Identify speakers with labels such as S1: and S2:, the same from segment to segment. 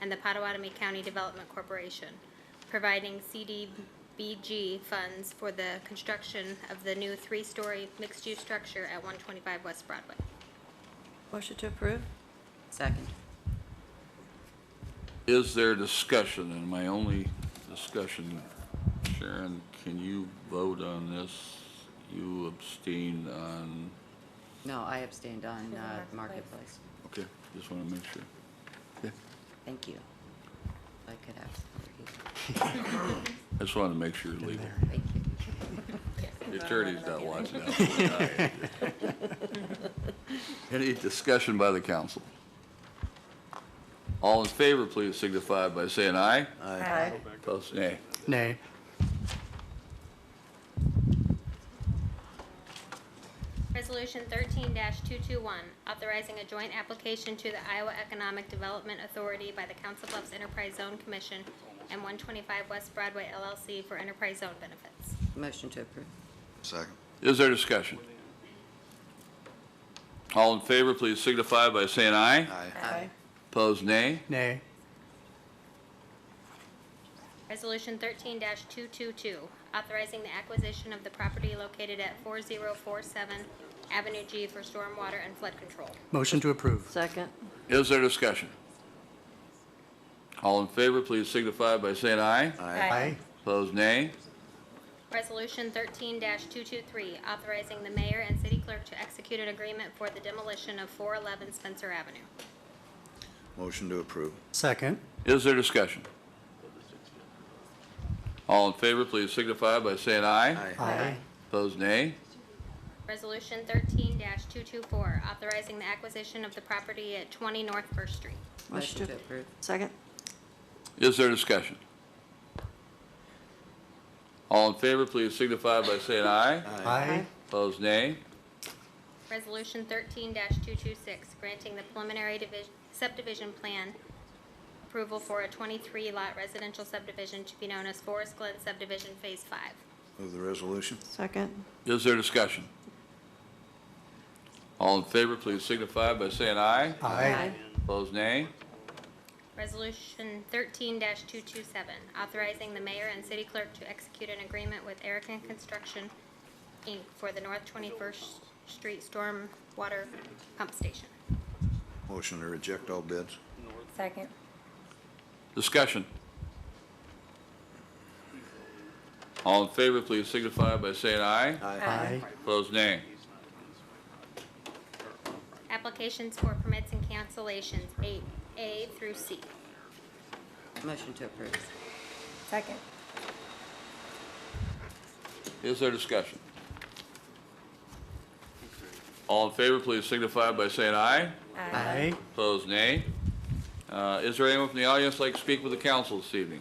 S1: and the Potawatomi County Development Corporation, providing CDBG funds for the construction of the new three-story mixed-use structure at 125 West Broadway.
S2: Motion to approve?
S3: Second.
S4: Is there discussion? And my only discussion, Sharon, can you vote on this? You abstain on,
S3: No, I abstained on uh, Marketplace.
S4: okay, just want to make sure.
S3: Thank you. If I could have,
S4: I just wanted to make sure you're legal.
S3: thank you.
S4: The attorney's not watching that. Any discussion by the council? All in favor, please signify by saying aye.
S2: Aye.
S4: Opposed, nay.
S5: Nay.
S1: Resolution thirteen two-two-one, authorizing a joint application to the Iowa Economic Development Authority by the Council Bluffs Enterprise Zone Commission and one twenty-five West Broadway LLC for enterprise zone benefits.
S3: Motion to approve.
S6: Second.
S4: Is there discussion? All in favor, please signify by saying aye.
S6: Aye.
S2: Aye.
S4: Opposed, nay.
S5: Nay.
S1: Resolution thirteen two-two-two, authorizing the acquisition of the property located at four zero four seven Avenue G for stormwater and flood control.
S5: Motion to approve.
S2: Second?
S4: Is there discussion? All in favor, please signify by saying aye.
S6: Aye.
S4: Opposed, nay.
S1: Resolution thirteen two-two-three, authorizing the mayor and city clerk to execute an agreement for the demolition of four eleven Spencer Avenue.
S6: Motion to approve.
S5: Second.
S4: Is there discussion? All in favor, please signify by saying aye.
S5: Aye.
S4: Opposed, nay.
S1: Resolution thirteen two-two-four, authorizing the acquisition of the property at twenty North First Street.
S3: Motion to approve.
S2: Second?
S4: Is there discussion? All in favor, please signify by saying aye.
S5: Aye.
S4: Opposed, nay.
S1: Resolution thirteen two-two-six, granting the preliminary division, subdivision plan approval for a twenty-three lot residential subdivision to be known as Forest Glen Subdivision Phase Five.
S6: Move the resolution.
S2: Second?
S4: Is there discussion? All in favor, please signify by saying aye.
S5: Aye.
S4: Opposed, nay.
S1: Resolution thirteen two-two-seven, authorizing the mayor and city clerk to execute an agreement with Erican Construction, Inc. for the North Twenty-First Street Storm Water Pump Station.
S6: Motion to reject all bids.
S7: Second.
S4: Discussion. All in favor, please signify by saying aye.
S5: Aye.
S4: Opposed, nay.
S1: Applications for permits and cancellations, eight A through C.
S3: Motion to approve.
S7: Second.
S4: Is there discussion? All in favor, please signify by saying aye.
S5: Aye.
S4: Opposed, nay. Uh, Is there anyone from the audience like to speak with the council this evening?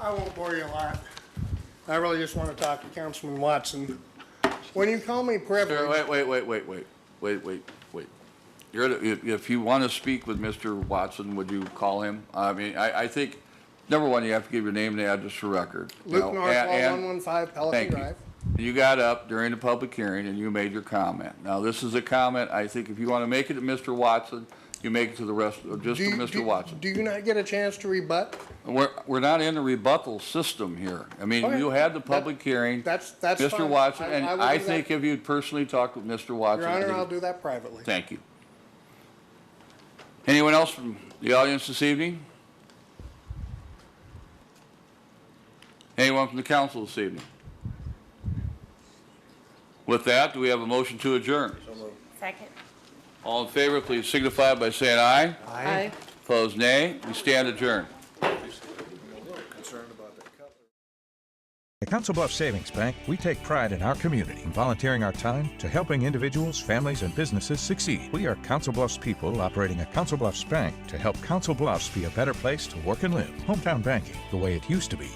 S8: I won't bore you a lot. I really just want to talk to Councilman Watson. When you call me
S4: Sir,
S8: privileged,
S4: Wait, wait, wait, wait, wait, wait, wait, wait. You're, the- if if you want to speak with Mr. Watson, would you call him? I mean, I, I think, number one, you have to give your name and address for record. you know,
S8: Luke
S4: and-
S8: Northwell,
S4: and-
S8: 115 Pelican
S4: Thank you.
S8: Drive.
S4: You got up during the public hearing and you made your comment. Now, this is a comment, I think if you want to make it to Mr. Watson, you make it to the rest, or just
S8: Do
S4: to
S8: you-
S4: Mr.
S8: do-
S4: Watson.
S8: Do you not get a chance to rebut?
S4: We're, we're not in a rebuttal system here. I mean,
S8: Okay.
S4: you had the
S8: That-
S4: public hearing.
S8: that's- that's
S4: Mr.
S8: fine.
S4: Watson,
S8: I-
S4: and
S8: I will
S4: I
S8: do that.
S4: think if you'd personally talked with Mr. Watson.
S8: Your Honor,
S4: he-
S8: I'll do that privately.
S4: Thank you. Anyone else from the audience this evening? Anyone from the council this evening? With that, do we have a motion to adjourn?
S7: Second.
S4: All in favor, please signify by saying aye.
S5: Aye.
S4: Opposed, nay. We stand adjourned.
S9: At Council Bluffs Savings Bank, we take pride in our community and volunteering our time to helping individuals, families, and businesses succeed. We are Council Bluffs people operating a Council Bluffs bank to help Council Bluffs be a better place to work and live. Hometown banking, the way it used to be.